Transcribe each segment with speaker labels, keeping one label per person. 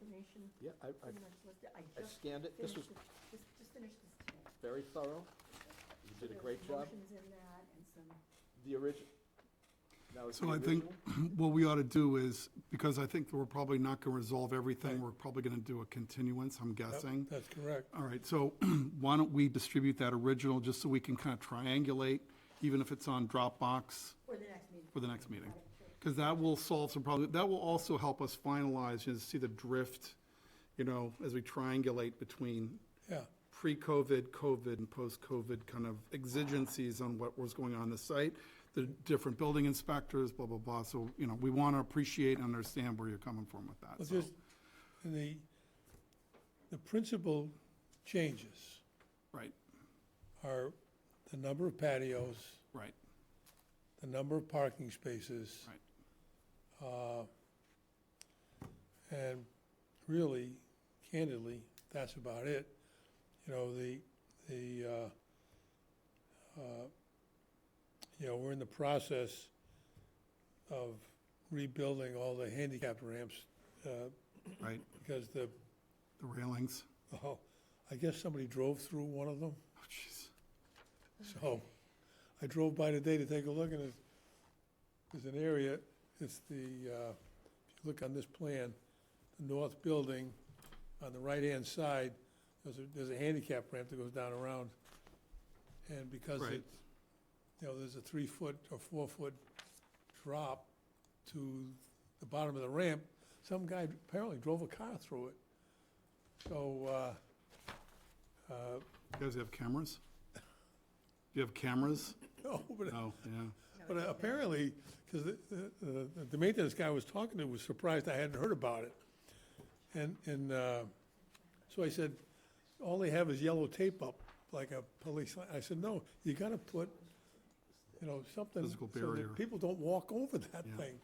Speaker 1: information
Speaker 2: Yeah, I, I
Speaker 1: pretty much listed. I
Speaker 2: I
Speaker 1: just
Speaker 2: scanned it, this was
Speaker 1: finished, this- just, just finished this today.
Speaker 2: very thorough, you
Speaker 1: So
Speaker 2: did a
Speaker 1: there's
Speaker 2: great job.
Speaker 1: Motions in that and some,
Speaker 2: The origin, now is the
Speaker 3: So I think
Speaker 2: original?
Speaker 3: what we ought to do is, because I think that we're probably not going to resolve everything, we're probably going to do a continuance, I'm guessing.
Speaker 4: That's correct.
Speaker 3: All right, so why don't we distribute that original, just so we can kind of triangulate, even if it's on Dropbox
Speaker 1: for the next meeting.
Speaker 3: for the next meeting?
Speaker 1: Got it, sure.
Speaker 3: Because that will solve some problems, that will also help us finalize, you know, see the drift, you know, as we triangulate between
Speaker 4: Yeah,
Speaker 3: pre-COVID, COVID, and post-COVID kind of exigencies on what was going on in the site, the different building inspectors, blah, blah, blah. So, you know, we want to appreciate and understand where you're coming from with that.
Speaker 4: well,
Speaker 3: So,
Speaker 4: just, and the, the principal changes
Speaker 3: right,
Speaker 4: are the number of patios,
Speaker 3: right,
Speaker 4: the number of parking spaces.
Speaker 3: Right.
Speaker 4: uh, And really, candidly, that's about it. You know, the, the, uh, uh, you know, we're in the process of rebuilding all the handicap ramps uh,
Speaker 3: right.
Speaker 4: because the
Speaker 3: The railings.
Speaker 4: Oh, I guess somebody drove through one of them,
Speaker 3: Oh, jeez.
Speaker 4: so I drove by today to take a look, and it's, there's an area, it's the, uh, if you look on this plan, the north building, on the right-hand side, there's a, there's a handicap ramp that goes down around, and because
Speaker 3: Right.
Speaker 4: it's, you know, there's a three-foot or four-foot drop to the bottom of the ramp, some guy apparently drove a car through it. So, uh, uh,
Speaker 3: You guys have cameras? Do you have cameras?
Speaker 4: No, but,
Speaker 3: No, yeah.
Speaker 1: No,
Speaker 4: but
Speaker 1: it's-
Speaker 4: apparently, because the, the, the- the maintenance guy I was talking to was surprised I hadn't heard about it. And, and, uh, so I said, all they have is yellow tape up, like a police, li- I said, no, you gotta put, you know, something.
Speaker 3: Physical
Speaker 4: so that
Speaker 3: barrier.
Speaker 4: People don't walk over that
Speaker 3: Yeah.
Speaker 4: thing.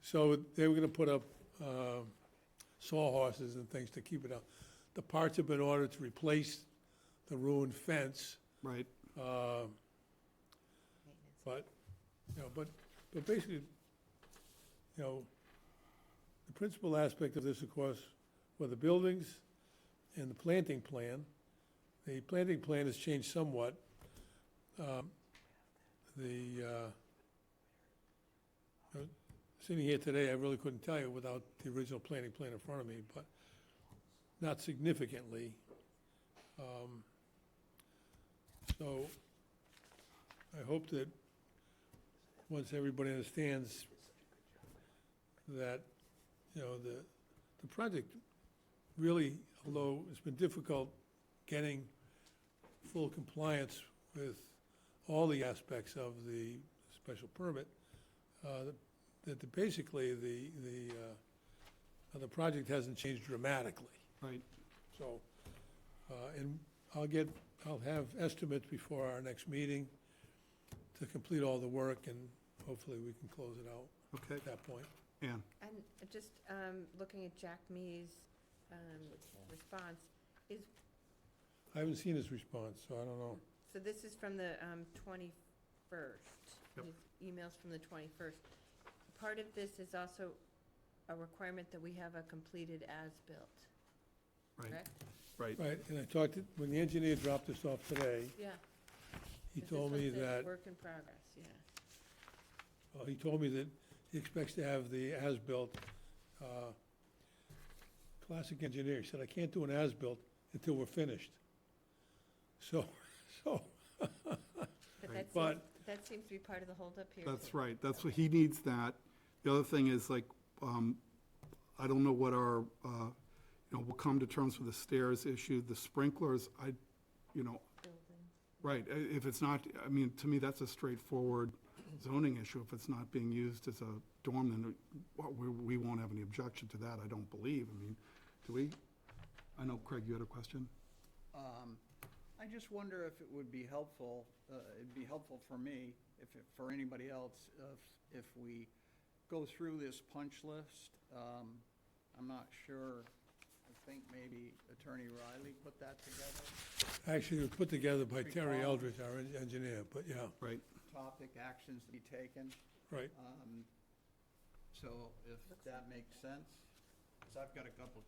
Speaker 4: So they were gonna put up, uh, sawhorses and things to keep it up. The parts have been ordered to replace the ruined fence.
Speaker 3: Right,
Speaker 4: Uh, But, you know, but, but basically, you know, the principal aspect of this, of course, were the buildings and the planting plan. The planting plan has changed somewhat. Um, The, uh, uh, sitting here today, I really couldn't tell you without the original planting plan in front of me, but not significantly. Um, So, I hope that once everybody understands that, you know, the, the project really, although it's been difficult getting full compliance with all the aspects of the special permit, uh, that the- basically the, the, uh, the project hasn't changed dramatically.
Speaker 3: right.
Speaker 4: So, uh, and I'll get, I'll have estimates before our next meeting to complete all the work, and hopefully we can close it out
Speaker 3: Okay,
Speaker 4: at that point.
Speaker 3: Ann,
Speaker 5: And just um, looking at Jack Mee's um, response,
Speaker 4: I haven't seen his response, so I don't know.
Speaker 5: so this is from the um, 21st.
Speaker 3: Yep.
Speaker 5: His Emails from the 21st. Part of this is also a requirement that we have a completed as-built,
Speaker 3: right,
Speaker 5: correct?
Speaker 3: right.
Speaker 4: Right, and I talked, to- when the engineer dropped this off today,
Speaker 5: Yeah.
Speaker 4: he
Speaker 5: 'cause this
Speaker 4: told
Speaker 5: one
Speaker 4: me
Speaker 5: says
Speaker 4: that,
Speaker 5: Work in progress, yeah.
Speaker 4: well, he told me that he expects to have the as-built. uh, Classic engineer, he said, I can't do an as-built until we're finished. So, so,
Speaker 5: But
Speaker 3: Right.
Speaker 5: that seems,
Speaker 4: But-
Speaker 5: that seems to be part of the holdup here.
Speaker 3: That's
Speaker 5: too.
Speaker 3: right, that's what, he needs that. The other thing is like, um, I don't know what our, uh, you know, we'll come to terms with the stairs issue, the sprinklers, I, you know,
Speaker 5: Building.
Speaker 3: right, i- if it's not, I mean, to me, that's a straightforward zoning issue. If it's not being used as a dorm, then well, we, we won't have any objection to that, I don't believe. I mean, do we? I know, Craig, you had a question?
Speaker 6: Um, I just wonder if it would be helpful, uh, it'd be helpful for me, if, it- for anybody else, if, if we go through this punch list. Um, I'm not sure, I think maybe Attorney Riley put that together,
Speaker 4: actually, it was put together by Terry
Speaker 6: Recall.
Speaker 4: Eldridge, our en- engineer, but yeah,
Speaker 3: Right,
Speaker 6: topic, actions to be taken.
Speaker 4: right.
Speaker 6: Um, So if that makes sense, 'cause I've got a couple of